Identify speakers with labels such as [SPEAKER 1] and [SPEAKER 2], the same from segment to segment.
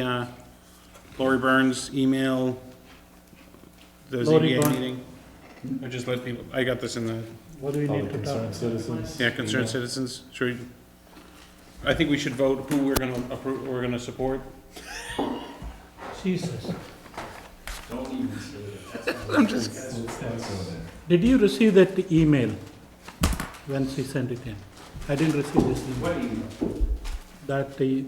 [SPEAKER 1] uh, Lori Burns email the
[SPEAKER 2] Lori
[SPEAKER 1] ZBA
[SPEAKER 2] Burn-
[SPEAKER 1] meeting? Or just let people, I got this in the,
[SPEAKER 2] What do we
[SPEAKER 3] All
[SPEAKER 2] need
[SPEAKER 3] the
[SPEAKER 2] to talk?
[SPEAKER 3] concerned citizens.
[SPEAKER 1] yeah, concerned citizens, should we? I think we should vote who we're gonna approve, we're gonna support.
[SPEAKER 2] Jesus.
[SPEAKER 3] Citizens.
[SPEAKER 2] Did you receive that email when she sent it in? I didn't receive this email. That the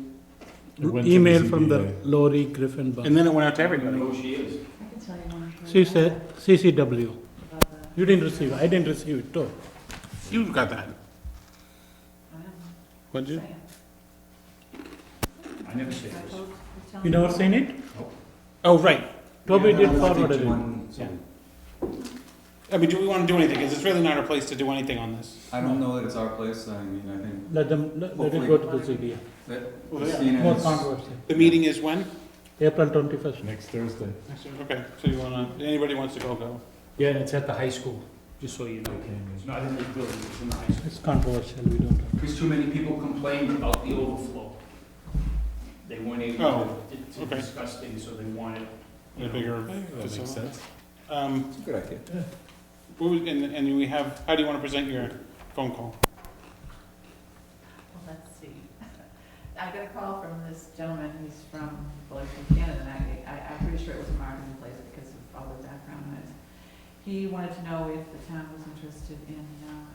[SPEAKER 3] went to the
[SPEAKER 2] email from the
[SPEAKER 3] ZBA.
[SPEAKER 2] Lori Griffin
[SPEAKER 1] And
[SPEAKER 2] Burns,
[SPEAKER 1] then it went out to everybody.
[SPEAKER 2] she said CCW. You didn't receive, I didn't receive it too.
[SPEAKER 1] You got that? What did you?
[SPEAKER 4] I never say this.
[SPEAKER 2] You never seen it?
[SPEAKER 1] Oh, right.
[SPEAKER 2] Toby did forward it.
[SPEAKER 4] I
[SPEAKER 1] I mean, do we wanna do anything? Because it's really not our place to do anything on this.
[SPEAKER 4] don't know that it's our place, I mean, I think
[SPEAKER 2] Let them, let let it go to the ZBA.
[SPEAKER 4] that
[SPEAKER 1] Well, yeah.
[SPEAKER 4] Christina
[SPEAKER 2] More
[SPEAKER 4] is-
[SPEAKER 2] controversy.
[SPEAKER 1] The meeting is when?
[SPEAKER 2] April twenty-first.
[SPEAKER 3] Next Thursday.
[SPEAKER 1] Okay, so you wanna, anybody wants to go, go.
[SPEAKER 5] Yeah, and it's at the high school, just so you know.
[SPEAKER 4] not in the building, it's in the high school.
[SPEAKER 2] It's controversial, we don't.
[SPEAKER 4] Because too many people complained about the overflow. They weren't
[SPEAKER 1] Oh,
[SPEAKER 4] able to- to
[SPEAKER 1] okay.
[SPEAKER 4] discuss things, so they wanted,
[SPEAKER 1] The
[SPEAKER 4] you know.
[SPEAKER 1] bigger.
[SPEAKER 3] That makes sense.
[SPEAKER 1] Um,
[SPEAKER 4] It's a good idea.
[SPEAKER 1] What was, and, and we have, how do you want to present your phone call?
[SPEAKER 6] Well, Let's see. I got a call from this gentleman who's from, well, he's from Canada, and I, I, I'm pretty sure it was a marketing place because of all the background noise. He wanted to know if the town was interested in, um,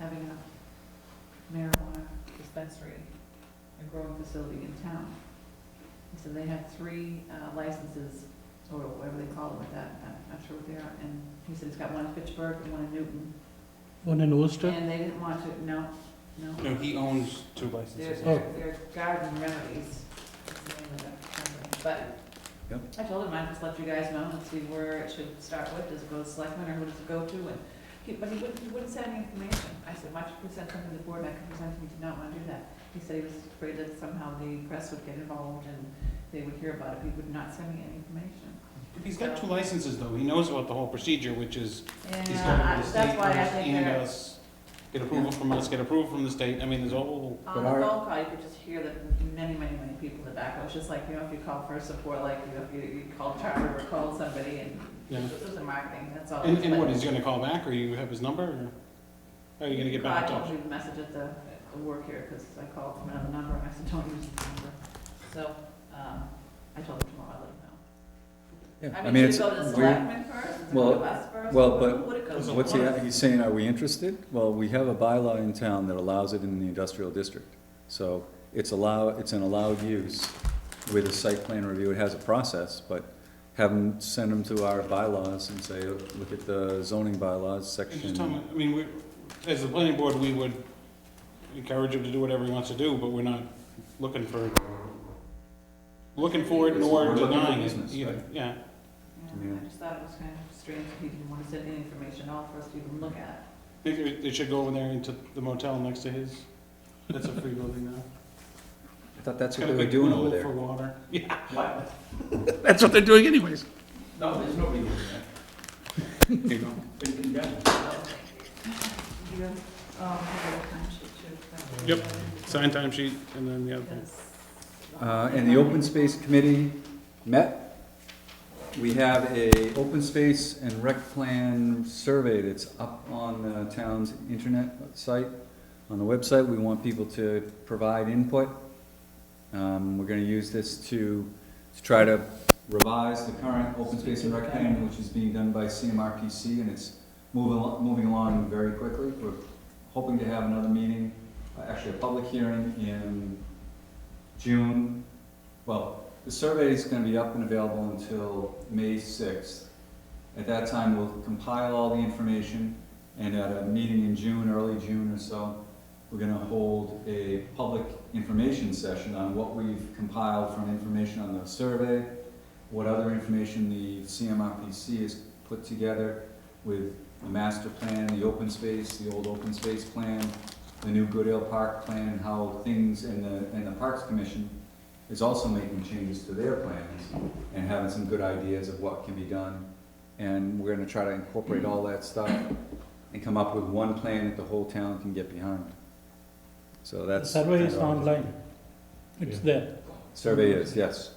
[SPEAKER 6] having a marijuana dispensary, a growing facility in town. He said they have three uh, licenses, or whatever they call them at that, I'm not sure what they are, and he said it's got one in Pittsburgh and one in Newton,
[SPEAKER 2] One in Worcester?
[SPEAKER 6] and they didn't want to, no, no.
[SPEAKER 1] No, he owns two
[SPEAKER 6] There's,
[SPEAKER 1] licenses.
[SPEAKER 2] Oh.
[SPEAKER 6] there's garden remedies, is the name of that company.
[SPEAKER 4] Yep.
[SPEAKER 6] but I told him I'd just let you guys know and see where it should start with, does it go to selectmen or who does it go to? And he, but he wouldn't, he wouldn't send any information. I said, why don't you present something to the board, and I could present, he did not want to do that. He said he was afraid that somehow the press would get involved and they would hear about it, he would not send me any information.
[SPEAKER 1] He's got two licenses though, he knows about the whole procedure, which is, he's
[SPEAKER 6] And
[SPEAKER 1] got to go to the
[SPEAKER 6] I-
[SPEAKER 1] state
[SPEAKER 6] that's why I
[SPEAKER 1] first,
[SPEAKER 6] think
[SPEAKER 1] and
[SPEAKER 6] they're,
[SPEAKER 1] us, get approval from us, get approval from the state, I mean, there's a whole,
[SPEAKER 6] on
[SPEAKER 4] But
[SPEAKER 6] the
[SPEAKER 4] our-
[SPEAKER 6] phone call, you could just hear the many, many, many people in the back. It was just like, you know, if you call for support, like, you know, if you, you called Charter or called somebody and
[SPEAKER 1] yeah.
[SPEAKER 6] This is a marketing, that's all.
[SPEAKER 1] And, and what, is he gonna call back, or you have his number, or how are you gonna get back in
[SPEAKER 6] I
[SPEAKER 1] touch?
[SPEAKER 6] don't leave a message at the, at the work here, because I called from another number, and I said, don't use this number. So, um, I told him tomorrow, I'll let him know. I mean, should it go to the selectmen first, does it go
[SPEAKER 7] well,
[SPEAKER 6] to us first?
[SPEAKER 7] well,
[SPEAKER 6] Who-
[SPEAKER 7] but
[SPEAKER 6] who would it go to?
[SPEAKER 7] What's he, he's saying, are we interested? Well, we have a bylaw in town that allows it in the industrial district. So it's allow, it's an allowed use with a site plan review. It has a process, but have them, send them to our bylaws and say, look at the zoning bylaws
[SPEAKER 1] And Just tell me,
[SPEAKER 7] section.
[SPEAKER 1] I mean, we, as the planning board, we would encourage him to do whatever he wants to do, but we're not looking for, looking for it nor
[SPEAKER 7] We're looking for
[SPEAKER 1] denying it
[SPEAKER 7] business,
[SPEAKER 1] either,
[SPEAKER 7] right.
[SPEAKER 1] yeah.
[SPEAKER 6] Yeah, I just thought it was kind of strange that he didn't want to send any information out for us to even look at.
[SPEAKER 1] Maybe we- they should go over there into the motel next to his. That's a free building now.
[SPEAKER 7] I thought that's
[SPEAKER 1] It's
[SPEAKER 7] what
[SPEAKER 1] got a
[SPEAKER 7] they were
[SPEAKER 1] big
[SPEAKER 7] doing
[SPEAKER 1] pool
[SPEAKER 7] over
[SPEAKER 1] For
[SPEAKER 7] there.
[SPEAKER 1] water. Yeah,
[SPEAKER 4] What?
[SPEAKER 1] that's what they're doing anyways.
[SPEAKER 4] No, there's nobody doing that.
[SPEAKER 1] There you go.
[SPEAKER 4] Been condemned.
[SPEAKER 6] You, um, have a time sheet too.
[SPEAKER 1] Yep. Sign time sheet and then the other thing.
[SPEAKER 6] Because-
[SPEAKER 7] Uh, and the open space committee met. We have a open space and rec plan survey that's up on the town's internet site. On the website, we want people to provide input. Um, we're gonna use this to, to try to revise the current open space and rec plan, which is being done by CMRPC, and it's moving, al- moving along very quickly. We're hoping to have another meeting, uh, actually a public hearing in June. Well, the survey is gonna be up and available until May sixth. At that time, we'll compile all the information, and at a meeting in June, early June or so, we're gonna hold a public information session on what we've compiled from information on the survey, what other information the CMRPC has put together with the master plan, the open space, the old open space plan, the new Goodale Park plan, and how things, and the, and the Parks Commission is also making changes to their plans and having some good ideas of what can be done. And we're gonna try to incorporate all that stuff and come up with one plan that the whole town can get behind. So
[SPEAKER 2] The
[SPEAKER 7] that's.
[SPEAKER 2] survey is online. It's there.
[SPEAKER 7] Survey is, yes.